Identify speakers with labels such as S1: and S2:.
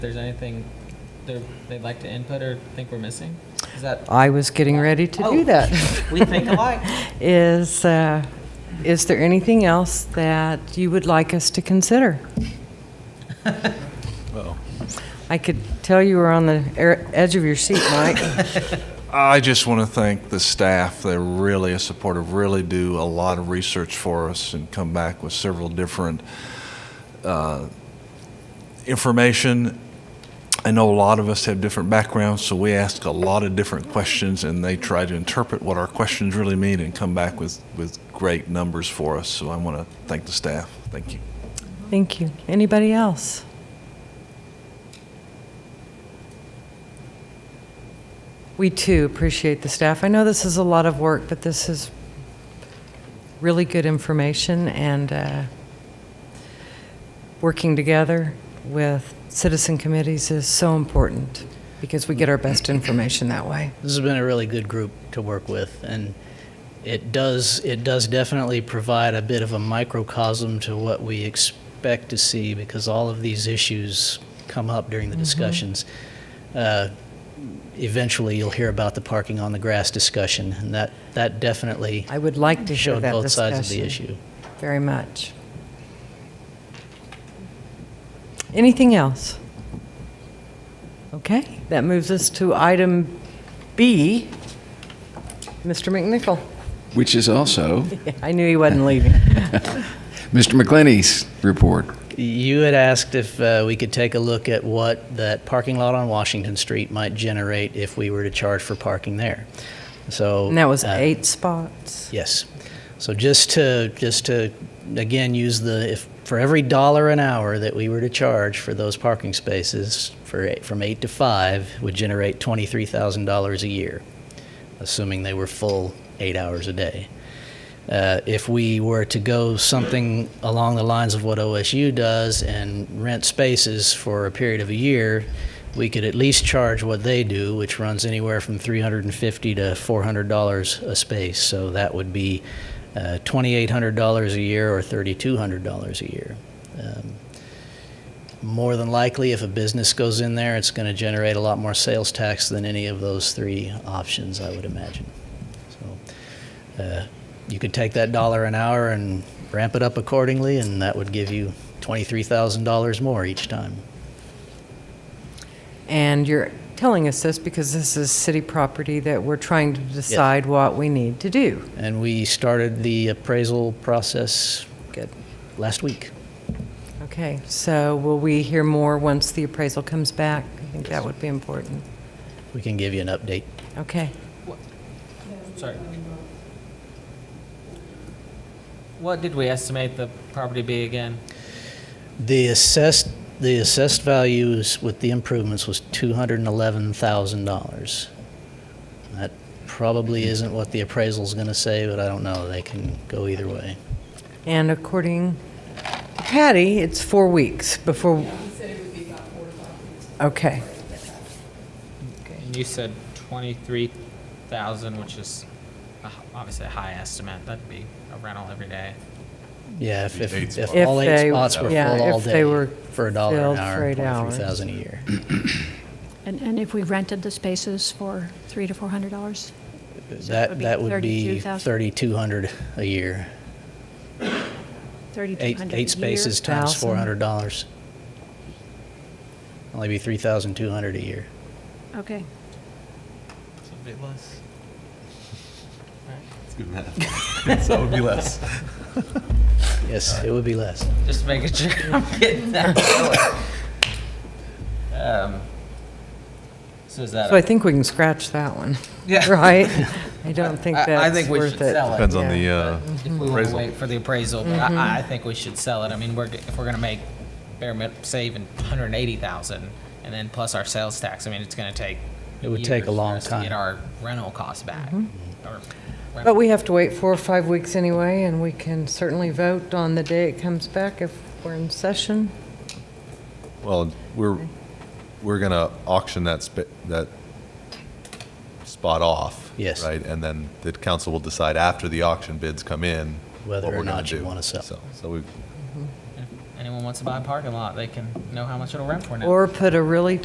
S1: there's anything they're- they'd like to input or think we're missing? Is that,
S2: I was getting ready to
S1: Oh.
S2: do that.
S1: we think alike.
S2: Is, uh, is there anything else that you would like us to consider? I could tell you were on the er- edge of your seat, Mike.
S3: I just want to thank the staff. They're really supportive, really do a lot of research for us and come back with several different uh, information. I know a lot of us have different backgrounds, so we ask a lot of different questions, and they try to interpret what our questions really mean and come back with, with great numbers for us. So I want to thank the staff. Thank you.
S2: Thank you. Anybody else? We too appreciate the staff. I know this is a lot of work, but this is really good information and uh, working together with citizen committees is so important because we get our best information that way.
S4: This has been a really good group to work with, and it does it does definitely provide a bit of a microcosm to what we expect to see because all of these issues come up during
S2: Mm-hmm.
S4: the discussions. Uh, eventually, you'll hear about the parking on the grass discussion, and that that definitely
S2: I would like to hear
S4: showed
S2: that
S4: both
S2: discussion.
S4: sides of the issue.
S2: Very much. Anything else? Okay, that moves us to item B. Mr. McNichol.
S5: which is also
S2: I knew he wasn't leaving.
S5: Mr. McClenny's report.
S4: You had asked if uh, we could take a look at what that parking lot on Washington Street might generate if we were to charge for parking there. So
S2: And that was
S4: uh,
S2: eight spots.
S4: Yes. So just to, just to, again, use the, if, for every dollar an hour that we were to charge for those parking spaces, for, eight- from eight to five, would generate $23,000 a year, assuming they were full eight hours a day. Uh, If we were to go something along the lines of what OSU does and rent spaces for a period of a year, we could at least charge what they do, which runs anywhere from 350 to $400 a space. So that would be uh, $2,800 a year or $3,200 a year. Um, More than likely, if a business goes in there, it's going to generate a lot more sales tax than any of those three options, I would imagine. So uh, you could take that dollar an hour and ramp it up accordingly, and that would give you $23,000 more each time.
S2: And you're telling us this because this is city property that we're trying to decide what we need to do.
S4: And we started the appraisal process
S2: Good.
S4: last week.
S2: Okay, so will we hear more once the appraisal comes back? I think that would be important.
S4: We can give you an update.
S2: Okay.
S1: Sorry. What did we estimate the property be again?
S4: The assessed, the assessed values with the improvements was $211,000. That probably isn't what the appraisal's going to say, but I don't know. They can go either way.
S2: And according to Patty, it's four weeks before. Okay,
S1: And you said twenty-three thousand, which is a h- obviously a high estimate. That'd be a rental every day.
S4: Yeah, if,
S3: Eight
S4: if, if
S2: spots.
S4: all
S2: If
S4: eight
S2: they-
S4: spots were
S2: yeah,
S4: full all
S2: if they
S4: day
S2: were
S4: for a dollar
S2: filled
S4: an
S2: for
S4: hour,
S2: eight hours.
S4: $23,000 a year.
S6: And, and if we rented the spaces for three to four hundred dollars?
S4: That, that would be
S6: 32,000.
S4: 3,200 a year.
S6: Thirty-two
S4: Eight,
S6: hundred a year?
S4: eight spaces times
S2: Thousand.
S4: four hundred dollars. Only be three thousand two hundred a year.
S6: Okay.
S1: So it'd be less.
S4: Yes, it would be less.
S1: Just making sure I'm getting that. Um, So is that?
S2: so
S1: a-
S2: I think we can scratch that one,
S1: Yeah.
S2: right? I don't think
S1: I-
S2: that's worth it.
S1: I think we should sell it.
S3: Depends
S2: on the,
S1: If we want to wait for the appraisal, but
S2: Mm-hmm.
S1: I, I think we should sell it. I mean, we're, g- if we're gonna make bare min, saving hundred and eighty thousand, and then plus our sales tax, I mean, it's gonna take.
S4: It would
S1: years
S4: take a
S1: for
S4: long
S1: us to
S4: time.
S1: Get our rental costs back. Or
S2: Mm-hmm. But
S1: rental-
S2: we have to wait four or five weeks anyway, and we can certainly vote on the day it comes back if we're in session.
S7: Well, we're, we're going to auction that, spa- that spot off.
S4: Yes.
S7: Right? And then the council will decide after the auction bids come in.
S4: Whether
S7: what
S4: or
S7: we're gonna
S4: not you
S7: do.
S4: wanna sell.
S7: So- So we,
S1: And anyone wants to buy a parking lot, they can know how much it'll rent for now.
S2: Or put a really